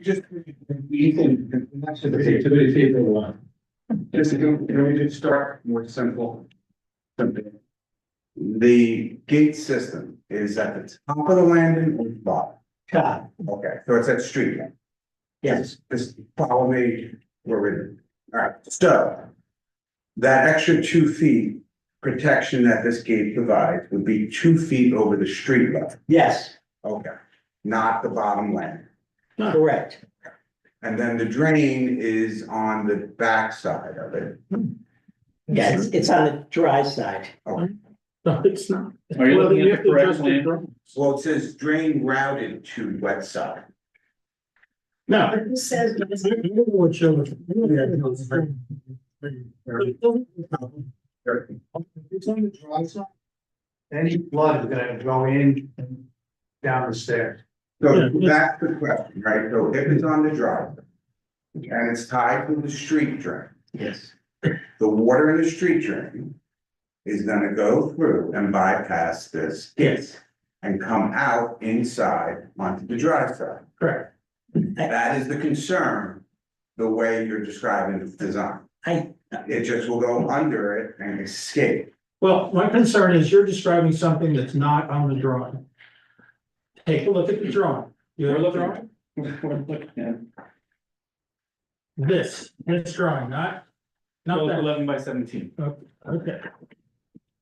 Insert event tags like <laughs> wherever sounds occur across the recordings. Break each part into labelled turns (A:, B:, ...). A: Just, you can, that's the activity table one. Just, can we just start more simple? Something.
B: The gate system is at the top of the landing or the bottom?
C: Top.
B: Okay, so it's at street level.
C: Yes.
B: This, follow me, we're in. All right, so. That extra two feet protection that this gate provides would be two feet over the street level.
C: Yes,
B: Okay, not the bottom land.
C: correct.
B: And then the drain is on the back side of it.
C: Yeah, it's, it's on the dry side.
D: No, it's not.
A: Are you
D: Well,
A: looking
D: you
A: at
D: have
A: the
D: to
A: correct
D: adjust
A: plan?
D: drawing.
B: Well, it says drain routed to wet side.
D: No.
E: But who says it is-
F: It's on the dry side. Any blood is gonna go in and down the stairs.
B: So
D: Yeah.
B: that's the question, right? So if it's on the drive. And it's tied to the street drain,
C: Yes.
B: the water in the street drain. Is gonna go through and bypass this gate. And come out inside onto the dry side.
C: Correct.
B: That is the concern. The way you're describing the design.
C: I-
B: It just will go under it and escape.
D: Well, my concern is you're describing something that's not on the drawing. Take a look at the drawing. You have a
A: We're looking.
D: drawing?
A: <laughs> We're looking at
D: This, this drawing, not, not
A: twelve,
D: that,
A: eleven by seventeen.
D: okay.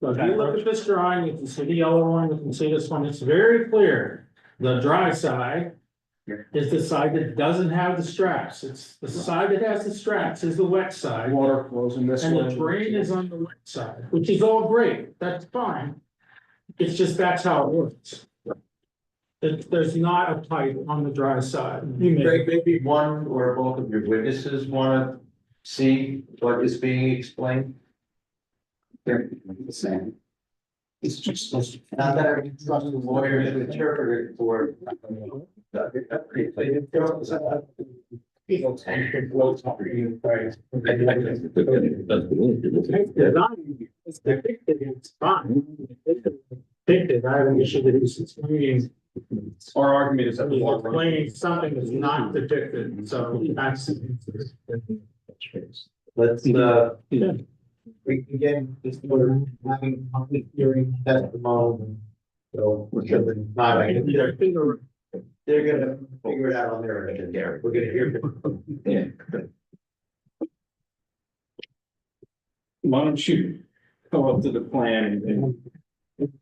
D: So if you look at this drawing, you can see the yellow one, you can see this one, it's very clear. The dry side is the side that doesn't have the straps. It's the side that has the straps is the wet side.
A: Water flows in this
D: And the drain is on the left side, which is all great, that's fine. It's just that's how it works. That there's not a pipe on the dry side. You may-
G: Greg, maybe one or both of your witnesses wanna see what is being explained?
B: The same.
G: It's just. Not that I trust the lawyer to interpret it for. People tend to gloat over you, right?
D: It's designed, it's depicted, it's fine. It's Depicted, I have an issue that it's explaining,
A: Our argument is that the water.
D: explaining something that's not depicted, so that's.
G: Let's, uh.
D: Yeah.
G: We can get this order, having a public hearing testimony. So we're sure that not, I can- they're, they're gonna figure it out on their end, Gary. We're gonna hear.
A: Why don't you go up to the plan and,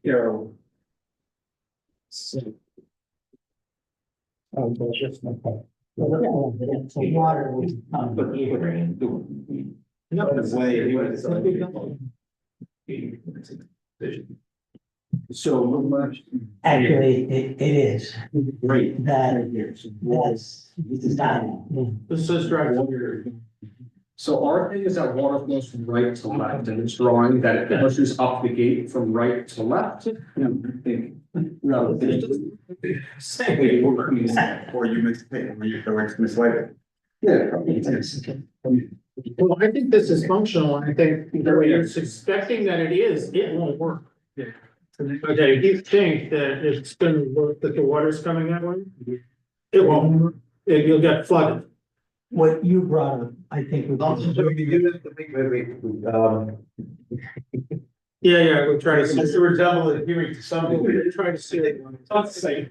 A: you know. So,
C: Water was.
A: but the drain, the- the way he was- So much.
C: Actually, it, it is,
A: Great.
C: that was done.
D: This is dry.
A: So our thing is that water flows from right to left and it's drawing that it pushes up the gate from right to left. Yeah, I think, rather than- Same way we're working this out.
B: Or you mistake, or you, or it's mislabeled.
A: Yeah.
D: Well, I think this is functional, and I think the way you're suspecting that it is, it won't work.
A: Yeah.
D: Okay, if you think that it's gonna work, that the water's coming that way, it won't, work. It- you'll get flooded.
C: What you brought up, I think, would
G: Also,
C: be-
G: we do this, we, we, we, um.
D: Yeah, yeah, we'll try to see.
G: Mr. Redondo, the hearing to some degree.
D: We'll try to see it.
A: Let's say,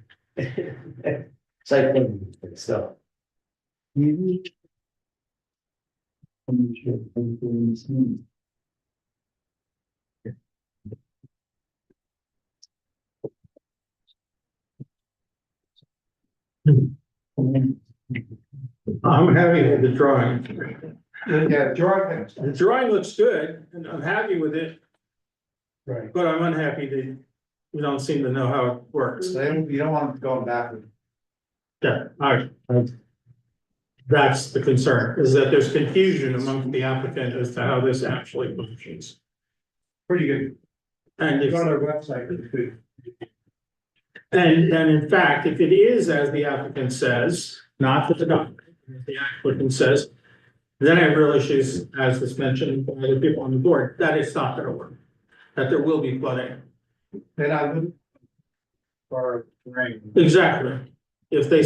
G: Site plan, so.
D: I'm happy with the drawing.
F: Yeah, dry.
D: The drawing looks good, and I'm happy with it,
F: Right.
D: but I'm unhappy that we don't seem to know how it works.
F: So they don't- you don't want them going backward.
D: Yeah, all right. That's the concern, is that there's confusion among the applicant as to how this actually functions.
F: Pretty good.
D: And if,
F: Go on their website, it's good.
D: and, and in fact, if it is as the applicant says, not that the doc- if the applicant says, then I have real issues, as was mentioned by the people on the board, that it's not gonna work, that there will be flooding.
F: Then I would. Or drain.
D: Exactly. If they